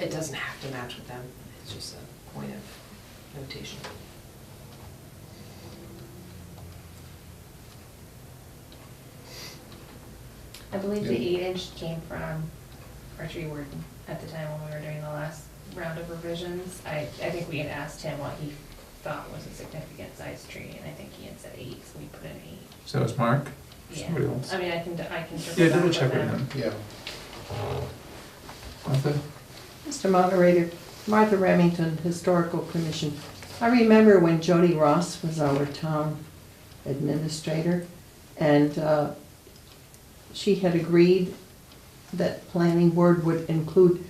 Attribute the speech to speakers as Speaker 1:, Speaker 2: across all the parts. Speaker 1: It doesn't have to match with them, it's just a point of notation.
Speaker 2: I believe the
Speaker 3: Yeah.
Speaker 2: eight inch came from our tree warden at the time when we were doing the last round of revisions. I, I think we had asked him what he thought was a significant size tree, and I think he had said eight, so we put an eight.
Speaker 4: So it's Mark? Somebody
Speaker 2: Yeah,
Speaker 4: else?
Speaker 2: I mean, I can, I can
Speaker 4: Yeah,
Speaker 2: triple back
Speaker 4: double
Speaker 2: with
Speaker 4: check with
Speaker 2: them.
Speaker 4: him.
Speaker 3: Yeah,
Speaker 4: Martha?
Speaker 5: Mr. Moderator, Martha Remington, Historical Commission. I remember when Jody Ross was our town administrator, and uh, she had agreed that planning board would include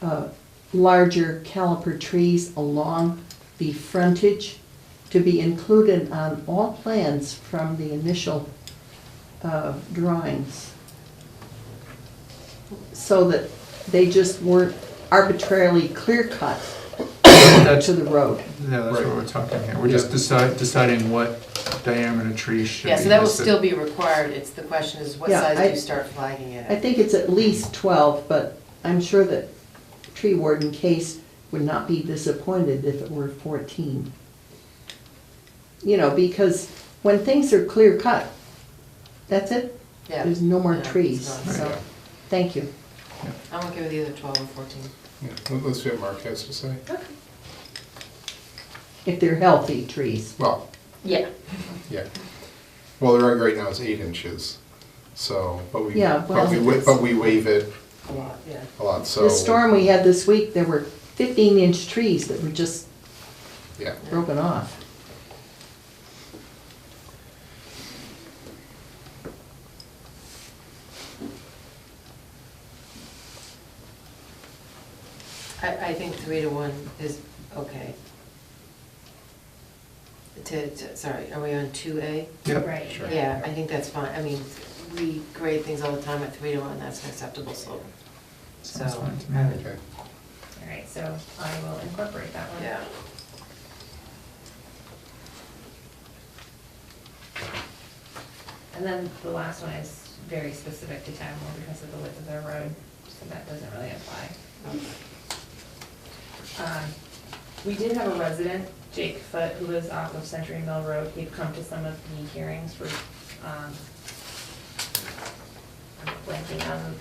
Speaker 5: uh, larger caliper trees along the frontage to be included on all plans from the initial uh, drawings so that they just weren't arbitrarily clear-cut
Speaker 4: That's,
Speaker 5: Uh, to
Speaker 4: yeah,
Speaker 5: the road.
Speaker 4: that's what
Speaker 3: Right.
Speaker 4: we're talking here. We're just
Speaker 3: Yeah.
Speaker 4: decide, deciding what diameter tree should be.
Speaker 1: Yeah, so that will
Speaker 4: listed.
Speaker 1: still be required, it's, the question is, what
Speaker 5: Yeah,
Speaker 1: size do
Speaker 5: I-
Speaker 1: you start flagging it
Speaker 5: I
Speaker 1: at?
Speaker 5: think it's at least 12, but I'm sure that tree warden Case would not be disappointed if it were 14. You know, because when things are clear-cut, that's it.
Speaker 1: Yeah.
Speaker 5: There's no more
Speaker 1: Yeah, it's
Speaker 5: trees,
Speaker 1: not-
Speaker 5: so,
Speaker 3: Right.
Speaker 5: thank you.
Speaker 1: I'm okay with either twelve or fourteen.
Speaker 3: yeah, Let- let's see what Mark has to say.
Speaker 1: Okay.
Speaker 5: If they're healthy trees.
Speaker 3: Well,
Speaker 2: Yeah,
Speaker 3: yeah. Well, the rug right now is eight inches, so, but we,
Speaker 5: Yeah,
Speaker 3: but we,
Speaker 5: well-
Speaker 3: wa- but we waive it
Speaker 1: A lot, yeah.
Speaker 3: a lot, so.
Speaker 5: The storm we had this week, there were 15-inch trees that were just
Speaker 3: Yeah,
Speaker 5: broken off.
Speaker 1: I, I think three to one is okay. To, to, sorry, are we on two A?
Speaker 4: Yep,
Speaker 2: right.
Speaker 3: Sure.
Speaker 1: Yeah, I think that's fine, I mean, we grade things all the time at three to one, that's an acceptable slope. So,
Speaker 4: Sounds fine to me.
Speaker 1: I would-
Speaker 3: okay.
Speaker 2: All right, so I will incorporate that one.
Speaker 1: yeah.
Speaker 2: And then the last one is very specific to Tadmore because of the width of their road, so that doesn't really apply. Um, We did have a resident, Jake Foote, who lives off of Century Mill Road. He'd come to some of the hearings for, um, I'm blanking on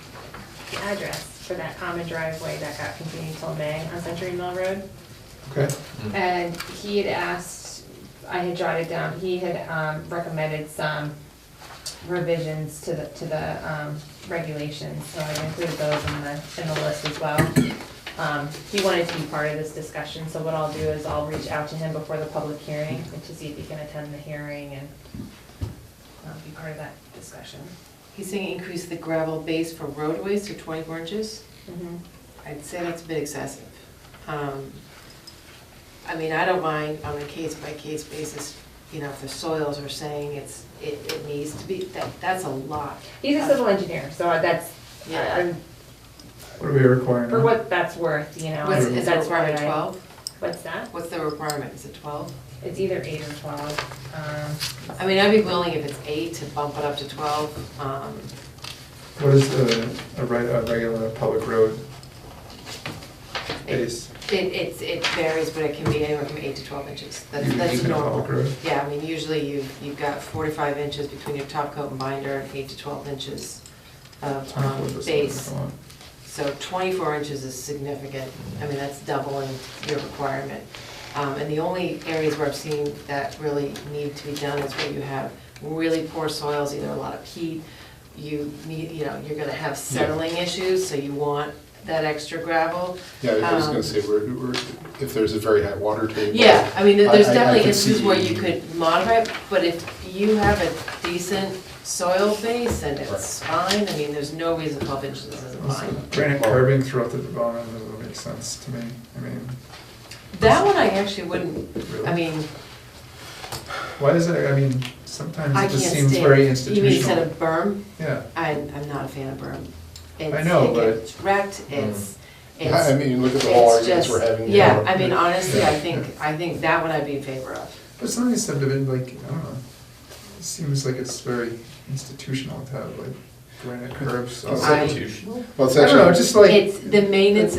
Speaker 2: the address for that common driveway that got continued till May on Century Mill Road.
Speaker 4: okay.
Speaker 2: And he had asked, I had jotted down, he had um, recommended some revisions to the, to the um, regulations, so I included those in the, in the list as well. Um, He wanted to be part of this discussion, so what I'll do is I'll reach out to him before the public hearing and to see if he can attend the hearing and um, be part of that discussion.
Speaker 1: He's saying increase the gravel base for roadways to twenty-four inches? I'd say that's a bit excessive. Um, I mean, I don't mind on a case-by-case basis, you know, if the soils are saying it's, it, it needs to be, that, that's a lot.
Speaker 2: He's a civil engineer, so that's, I-
Speaker 1: Yeah.
Speaker 2: I'm-
Speaker 4: What are we requiring?
Speaker 2: for what that's worth, you know.
Speaker 1: What's, is the
Speaker 2: that's
Speaker 1: requirement
Speaker 2: what I-
Speaker 1: twelve?
Speaker 2: What's that?
Speaker 1: What's the requirement, is it twelve?
Speaker 2: It's either eight or twelve. Um,
Speaker 1: I mean, I'd be willing if it's eight to bump it up to twelve, um,
Speaker 4: What is the, a right, a regular public road base?
Speaker 1: It, it's, it varies, but it can be anywhere from eight to twelve inches. That's,
Speaker 4: Even-
Speaker 1: that's
Speaker 4: even a
Speaker 1: normal.
Speaker 4: public road?
Speaker 1: Yeah, I mean, usually you, you've got four to five inches between your top coat and binder and eight to twelve inches of um,
Speaker 4: 24 percent,
Speaker 1: base.
Speaker 4: come on.
Speaker 1: So twenty-four inches is significant. I mean, that's doubling your requirement. Um, and the only areas where I've seen that really need to be done is where you have really poor soils, either a lot of peat, you need, you know, you're gonna have settling issues, so you want that extra gravel.
Speaker 3: Yeah, I was gonna
Speaker 1: Um,
Speaker 3: say, we're, we're, if there's a very high water table.
Speaker 1: Yeah, I mean, there- there's
Speaker 3: I- I- I
Speaker 1: definitely
Speaker 3: could
Speaker 1: instances where
Speaker 3: see-
Speaker 1: you could modify it, but if you have a decent soil base and it's fine, I mean, there's no reason twelve inches isn't
Speaker 4: Also,
Speaker 1: fine.
Speaker 4: Granite curbing throughout the development doesn't make sense to me, I mean,
Speaker 1: That one I actually wouldn't, I
Speaker 4: really.
Speaker 1: mean,
Speaker 4: Why is that, I mean, sometimes
Speaker 1: I
Speaker 4: it
Speaker 1: can't
Speaker 4: just
Speaker 1: stand.
Speaker 4: seems very
Speaker 1: You mean instead
Speaker 4: institutional.
Speaker 1: of berm?
Speaker 4: Yeah,
Speaker 1: I'm, I'm not a fan of berm.
Speaker 4: I know, but-
Speaker 1: It's wrecked, it's,
Speaker 3: Mm. Yeah, I
Speaker 1: it's,
Speaker 3: mean, look at the whole
Speaker 1: it's
Speaker 3: arguments
Speaker 1: just,
Speaker 3: we're having. you
Speaker 1: yeah,
Speaker 3: know.
Speaker 1: I mean, honestly, I
Speaker 3: Yeah.
Speaker 1: think, I think that one I'd be in favor of.
Speaker 4: but some of these subdivisions, like, I don't know, it seems like it's very institutional to have like granite curbs. all
Speaker 3: I-
Speaker 4: over.
Speaker 3: Well, it's
Speaker 4: I don't know,
Speaker 3: actually,
Speaker 4: just like.
Speaker 1: It's, the maintenance